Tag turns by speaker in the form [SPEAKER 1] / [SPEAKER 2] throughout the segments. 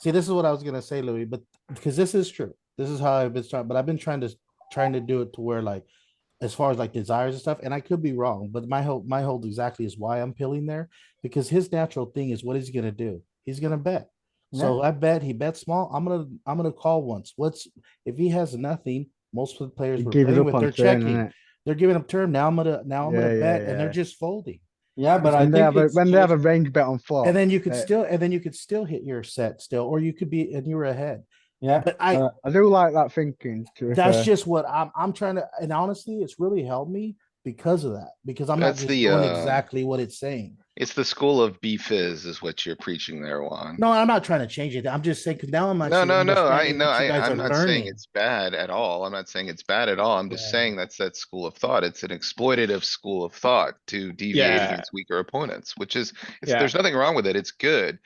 [SPEAKER 1] See, this is what I was gonna say, Louis, but because this is true. This is how I've been trying, but I've been trying to trying to do it to where like as far as like desires and stuff, and I could be wrong, but my hold my hold exactly is why I'm pilling there because his natural thing is what he's gonna do. He's gonna bet. So I bet he bet small. I'm gonna I'm gonna call once. What's if he has nothing? Most of the players
[SPEAKER 2] You
[SPEAKER 1] we're
[SPEAKER 2] gave it
[SPEAKER 1] playing
[SPEAKER 2] up
[SPEAKER 1] with, they're
[SPEAKER 2] on uh, turn,
[SPEAKER 1] checking.
[SPEAKER 2] innit?
[SPEAKER 1] They're giving up turn. Now I'm gonna now I'm
[SPEAKER 2] Yeah,
[SPEAKER 1] gonna
[SPEAKER 2] yeah,
[SPEAKER 1] bet, and they're
[SPEAKER 2] yeah.
[SPEAKER 1] just folding.
[SPEAKER 3] Yeah, but I
[SPEAKER 2] When
[SPEAKER 3] think
[SPEAKER 2] they have, a-
[SPEAKER 3] it's
[SPEAKER 2] when they have
[SPEAKER 3] just-
[SPEAKER 2] a range bet on flop.
[SPEAKER 1] And then you could
[SPEAKER 4] Oh,
[SPEAKER 2] uh,
[SPEAKER 1] still and then you could still hit your set still, or you could be and you were ahead.
[SPEAKER 3] yeah,
[SPEAKER 1] But I
[SPEAKER 4] Oh,
[SPEAKER 3] Uh,
[SPEAKER 2] I do like that thinking. to be fair.
[SPEAKER 1] that's just what I'm I'm trying to and honestly, it's really helped me because of that, because I'm not
[SPEAKER 5] That's
[SPEAKER 1] just
[SPEAKER 5] the,
[SPEAKER 1] doing
[SPEAKER 5] uh,
[SPEAKER 1] exactly what it's saying.
[SPEAKER 5] It's the school of B fizz is what you're preaching there, Juan.
[SPEAKER 1] No, I'm not trying to change it. I'm just saying, cause now I'm
[SPEAKER 5] No,
[SPEAKER 1] actually
[SPEAKER 5] no, no, I,
[SPEAKER 1] understanding
[SPEAKER 5] no,
[SPEAKER 1] what you
[SPEAKER 5] I,
[SPEAKER 1] guys are
[SPEAKER 5] I'm not saying
[SPEAKER 1] learning.
[SPEAKER 5] it's bad at all. I'm not saying it's bad at all. I'm just
[SPEAKER 1] Yeah.
[SPEAKER 5] saying that's that school of thought. It's an exploitative school of thought to deviate
[SPEAKER 4] Yeah.
[SPEAKER 5] against weaker opponents, which is, it's-
[SPEAKER 4] Yeah.
[SPEAKER 5] there's nothing wrong with it. It's good.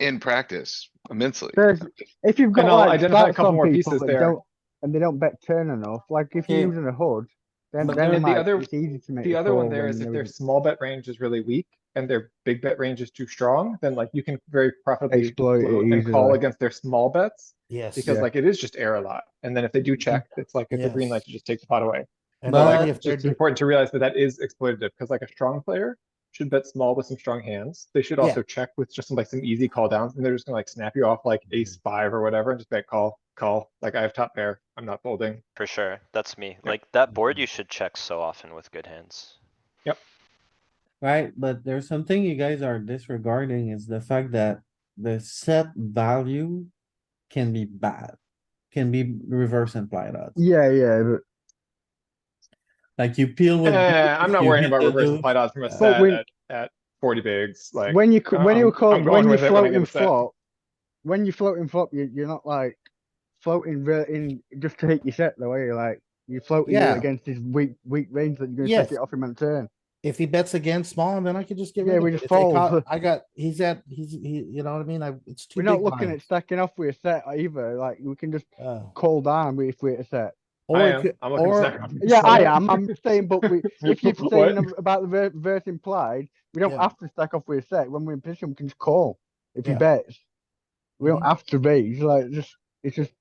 [SPEAKER 5] In practice immensely.
[SPEAKER 2] There's- If you've got
[SPEAKER 4] I'll
[SPEAKER 2] like
[SPEAKER 4] identify a
[SPEAKER 2] stacks
[SPEAKER 4] couple
[SPEAKER 2] on
[SPEAKER 4] more
[SPEAKER 2] people
[SPEAKER 4] pieces
[SPEAKER 2] that
[SPEAKER 4] there.
[SPEAKER 2] don't, and they don't bet turn enough, like if you're
[SPEAKER 3] Yeah.
[SPEAKER 2] using a hood, then
[SPEAKER 3] But
[SPEAKER 2] then
[SPEAKER 4] then the
[SPEAKER 2] like,
[SPEAKER 4] other-
[SPEAKER 2] it's easy to make.
[SPEAKER 4] The
[SPEAKER 2] a
[SPEAKER 4] other one
[SPEAKER 2] call
[SPEAKER 4] there
[SPEAKER 2] when
[SPEAKER 4] is if
[SPEAKER 2] there
[SPEAKER 4] their
[SPEAKER 2] is
[SPEAKER 4] small bet range is really weak and their big bet range is too strong, then like you can very profitably
[SPEAKER 2] Exploit it
[SPEAKER 4] blow and call
[SPEAKER 2] uh, easily.
[SPEAKER 4] against their small bets.
[SPEAKER 1] Yes. Mm-hmm.
[SPEAKER 4] Because
[SPEAKER 2] Yeah.
[SPEAKER 4] like it is just air a lot. And then if they do check, it's like it's a green light
[SPEAKER 1] Yes.
[SPEAKER 4] to just take the pot away.
[SPEAKER 1] And
[SPEAKER 4] But
[SPEAKER 1] only
[SPEAKER 4] like,
[SPEAKER 1] if
[SPEAKER 4] it's
[SPEAKER 1] they're
[SPEAKER 4] just
[SPEAKER 1] do-
[SPEAKER 4] important to realize that that is exploitative, because like a strong player should bet small with some strong hands. They should
[SPEAKER 1] Yeah.
[SPEAKER 4] also check with just some like some easy call downs, and they're just gonna like snap you off like ace
[SPEAKER 1] Mm-hmm.
[SPEAKER 4] five or whatever, and just bet call, call, like I have top pair, I'm not folding.
[SPEAKER 6] For sure, that's me. Like, that board you should check so often with good hands.
[SPEAKER 3] right? But there's something you guys are disregarding is the fact that the set value can be bad, can be reverse implied odds.
[SPEAKER 2] Yeah, yeah, but
[SPEAKER 3] Like you peel with.
[SPEAKER 4] Eh, I'm not
[SPEAKER 3] you
[SPEAKER 4] worrying
[SPEAKER 3] hit
[SPEAKER 4] about
[SPEAKER 3] the
[SPEAKER 4] reverse
[SPEAKER 3] loop.
[SPEAKER 4] implied odds from a
[SPEAKER 3] But
[SPEAKER 4] set
[SPEAKER 2] when-
[SPEAKER 4] at, at forty bigs, like.
[SPEAKER 2] when you, co- when
[SPEAKER 4] I'm-
[SPEAKER 2] you call,
[SPEAKER 4] I'm going
[SPEAKER 2] when you
[SPEAKER 4] with it when I get
[SPEAKER 2] floating
[SPEAKER 4] upset.
[SPEAKER 2] flop, when you floating flop, you, you're not like floating re- in just to hit your set the way you like. You're floating it
[SPEAKER 1] Yeah.
[SPEAKER 2] against this weak, weak range that you're gonna
[SPEAKER 1] Yes.
[SPEAKER 2] take it off him on turn.
[SPEAKER 1] if he bets against small, then I could just get
[SPEAKER 2] Yeah,
[SPEAKER 1] rid of
[SPEAKER 2] we
[SPEAKER 1] it.
[SPEAKER 2] just
[SPEAKER 1] If they
[SPEAKER 2] fold.
[SPEAKER 1] call- I got, he's at, he's, he, you know what I mean? I, it's too
[SPEAKER 2] We're
[SPEAKER 1] big
[SPEAKER 2] not looking at
[SPEAKER 1] blind.
[SPEAKER 2] stacking off with a set either, like, we can just
[SPEAKER 1] Uh,
[SPEAKER 2] call down if we're at a set.
[SPEAKER 1] Or
[SPEAKER 4] I
[SPEAKER 1] it
[SPEAKER 4] am.
[SPEAKER 1] could-
[SPEAKER 4] I'm looking
[SPEAKER 1] or-
[SPEAKER 4] snack off.
[SPEAKER 2] Yeah, I am. I'm saying, but we, if you're
[SPEAKER 4] What?
[SPEAKER 2] saying ab- about the ver- verse implied, we don't
[SPEAKER 1] Yeah.
[SPEAKER 2] have to stack off with a set. When we're in position, we can just call if he
[SPEAKER 1] Yeah.
[SPEAKER 2] bets. We don't
[SPEAKER 1] Mhm.
[SPEAKER 2] have to raise. Like just, it's just.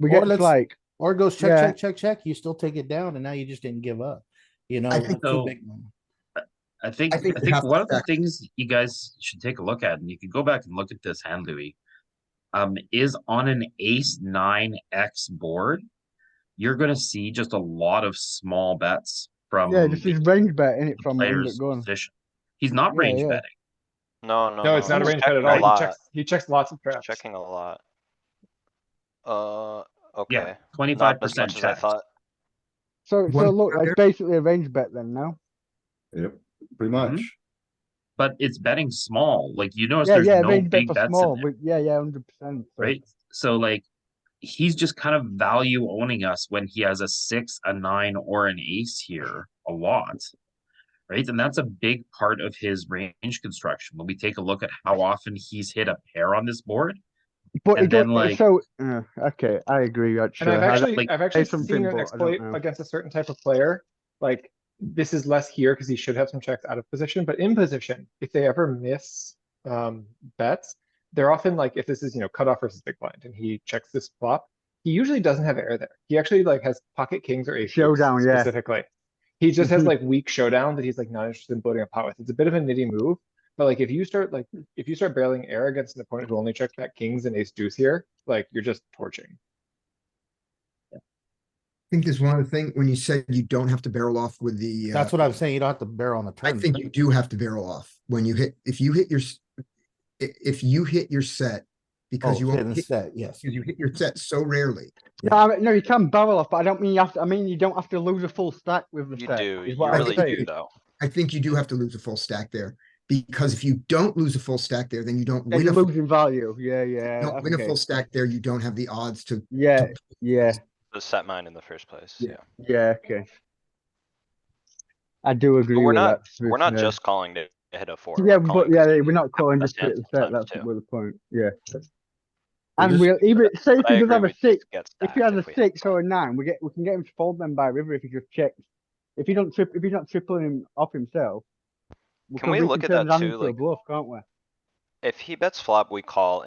[SPEAKER 2] We
[SPEAKER 1] Or
[SPEAKER 2] get
[SPEAKER 1] let's-
[SPEAKER 2] like,
[SPEAKER 1] Or it goes check,
[SPEAKER 2] Yeah.
[SPEAKER 1] check, check, check, you still take it down and now you just didn't give up, you know?
[SPEAKER 7] I
[SPEAKER 1] with
[SPEAKER 7] think
[SPEAKER 1] two
[SPEAKER 7] though-
[SPEAKER 1] big ones.
[SPEAKER 7] I think, I
[SPEAKER 3] think
[SPEAKER 7] think,
[SPEAKER 3] we have to
[SPEAKER 7] one of the
[SPEAKER 3] check.
[SPEAKER 7] things you guys should take a look at, and you can go back and look at this hand, Louis. Um, is on an ace nine X board, you're gonna see just a lot of small bets from.
[SPEAKER 2] yeah, this
[SPEAKER 7] the
[SPEAKER 2] is range bet in it from under
[SPEAKER 7] Um, player's
[SPEAKER 2] gun.
[SPEAKER 7] position. He's not
[SPEAKER 2] Yeah,
[SPEAKER 7] range
[SPEAKER 2] yeah.
[SPEAKER 7] betting.
[SPEAKER 6] No, no, no.
[SPEAKER 4] No, it's not a
[SPEAKER 6] he's
[SPEAKER 4] range bet at
[SPEAKER 6] checking
[SPEAKER 4] all.
[SPEAKER 6] A
[SPEAKER 4] He
[SPEAKER 6] lot,
[SPEAKER 4] checks, he checks lots of traps.
[SPEAKER 6] checking a lot. Uh,
[SPEAKER 7] Yeah,
[SPEAKER 6] okay.
[SPEAKER 7] twenty-five
[SPEAKER 6] Not as
[SPEAKER 7] percent
[SPEAKER 6] much as I
[SPEAKER 7] check.
[SPEAKER 6] thought.
[SPEAKER 2] So, so
[SPEAKER 8] One
[SPEAKER 2] look, it's
[SPEAKER 8] player.
[SPEAKER 2] basically a range bet then now.
[SPEAKER 8] Yep, pretty much.
[SPEAKER 7] Mm-hmm. But it's betting small, like you notice
[SPEAKER 2] Yeah,
[SPEAKER 7] there's
[SPEAKER 2] yeah,
[SPEAKER 7] no
[SPEAKER 2] range bet
[SPEAKER 7] big
[SPEAKER 2] for
[SPEAKER 7] bets
[SPEAKER 2] small,
[SPEAKER 7] in there,
[SPEAKER 2] but yeah, yeah, hundred percent.
[SPEAKER 7] right? So like, he's just kind of value owning us when he has a six, a nine, or an ace here a lot. Right, and that's a big part of his range construction. When we take a look at how often he's hit a pair on this board,
[SPEAKER 2] But it
[SPEAKER 7] and then,
[SPEAKER 2] doesn't,
[SPEAKER 7] like-
[SPEAKER 2] so, uh, okay, I agree,
[SPEAKER 4] And
[SPEAKER 2] actually.
[SPEAKER 4] I've
[SPEAKER 2] I-
[SPEAKER 4] actually,
[SPEAKER 7] like,
[SPEAKER 4] I've actually
[SPEAKER 2] some
[SPEAKER 4] seen an
[SPEAKER 2] pinball, I don't
[SPEAKER 4] exploit
[SPEAKER 2] know.
[SPEAKER 4] against a certain type of player, like, this is less here because he should have some checks out of position, but in position, if they ever miss, um, bets, they're often like, if this is, you know, cutoff versus big blind, and he checks this flop, he usually doesn't have air there. He actually like has pocket kings or aces
[SPEAKER 2] Showdown, yeah.
[SPEAKER 4] specifically. He just has
[SPEAKER 2] Mhm.
[SPEAKER 4] like weak showdown that he's like not interested in building a pot with. It's a bit of a nitty move, but like if you start like, if you start barreling air against an opponent who only checks back kings and ace deuce here, like, you're just torching.
[SPEAKER 8] I think there's one other thing, when you said you don't have to barrel off with the. uh,
[SPEAKER 1] That's what I'm saying. You don't have to barrel on the Oh,
[SPEAKER 8] I
[SPEAKER 1] turn.
[SPEAKER 8] think you do have to barrel off when you hit, if you hit your, s- i- if you hit your set,
[SPEAKER 1] Oh,
[SPEAKER 8] because you
[SPEAKER 1] hidden
[SPEAKER 8] only, hit-
[SPEAKER 1] set, yes.
[SPEAKER 8] because you hit your set so rarely.
[SPEAKER 2] No, I mean- no, you can barrel off, but I don't mean you have to, I mean, you don't have to lose a full stack with the
[SPEAKER 6] You
[SPEAKER 2] set.
[SPEAKER 6] do,
[SPEAKER 2] is
[SPEAKER 6] you
[SPEAKER 2] what I'm
[SPEAKER 6] really
[SPEAKER 2] saying.
[SPEAKER 6] do though.
[SPEAKER 8] I think you do have to lose a full stack there, because if you don't lose a full stack there, then you don't
[SPEAKER 2] Yeah,
[SPEAKER 8] win
[SPEAKER 2] you're
[SPEAKER 8] a, full-
[SPEAKER 2] losing value. Yeah, yeah.
[SPEAKER 8] don't win a
[SPEAKER 2] okay.
[SPEAKER 8] full stack there, you don't have the odds to.
[SPEAKER 2] Yeah,
[SPEAKER 8] to-
[SPEAKER 2] yeah,
[SPEAKER 6] Just set mine in the first place,
[SPEAKER 8] Yeah.
[SPEAKER 6] yeah.
[SPEAKER 2] yeah. Okay. I do agree.
[SPEAKER 6] we're
[SPEAKER 2] with
[SPEAKER 6] not-
[SPEAKER 2] that, to be
[SPEAKER 6] We're not
[SPEAKER 2] fair.
[SPEAKER 6] just calling to hit a four.
[SPEAKER 2] Yeah,
[SPEAKER 6] we're
[SPEAKER 2] but
[SPEAKER 6] calling
[SPEAKER 2] yeah,
[SPEAKER 6] 'cause
[SPEAKER 2] yeah,
[SPEAKER 6] we
[SPEAKER 2] we're not calling just
[SPEAKER 6] best
[SPEAKER 2] to hit
[SPEAKER 6] hands
[SPEAKER 2] the set.
[SPEAKER 6] sometimes
[SPEAKER 2] That's
[SPEAKER 6] too.
[SPEAKER 2] where the point. Yeah.
[SPEAKER 8] We're
[SPEAKER 2] And
[SPEAKER 8] just-
[SPEAKER 2] we'll even say if he
[SPEAKER 6] But I
[SPEAKER 2] does
[SPEAKER 6] agree
[SPEAKER 2] have
[SPEAKER 6] we
[SPEAKER 2] a
[SPEAKER 6] just
[SPEAKER 2] six,
[SPEAKER 6] get
[SPEAKER 2] if
[SPEAKER 6] stacked
[SPEAKER 2] he has a
[SPEAKER 6] we hit
[SPEAKER 2] six
[SPEAKER 6] one.
[SPEAKER 2] or a nine, we get we can get him to fold them by river if he just checks. If he don't trip, if he's not tripling him off himself.
[SPEAKER 6] Can we look at
[SPEAKER 2] turn
[SPEAKER 6] that
[SPEAKER 2] it
[SPEAKER 6] too,
[SPEAKER 2] into a
[SPEAKER 6] like-
[SPEAKER 2] Bluff, can't we?
[SPEAKER 6] If he bets flop, we call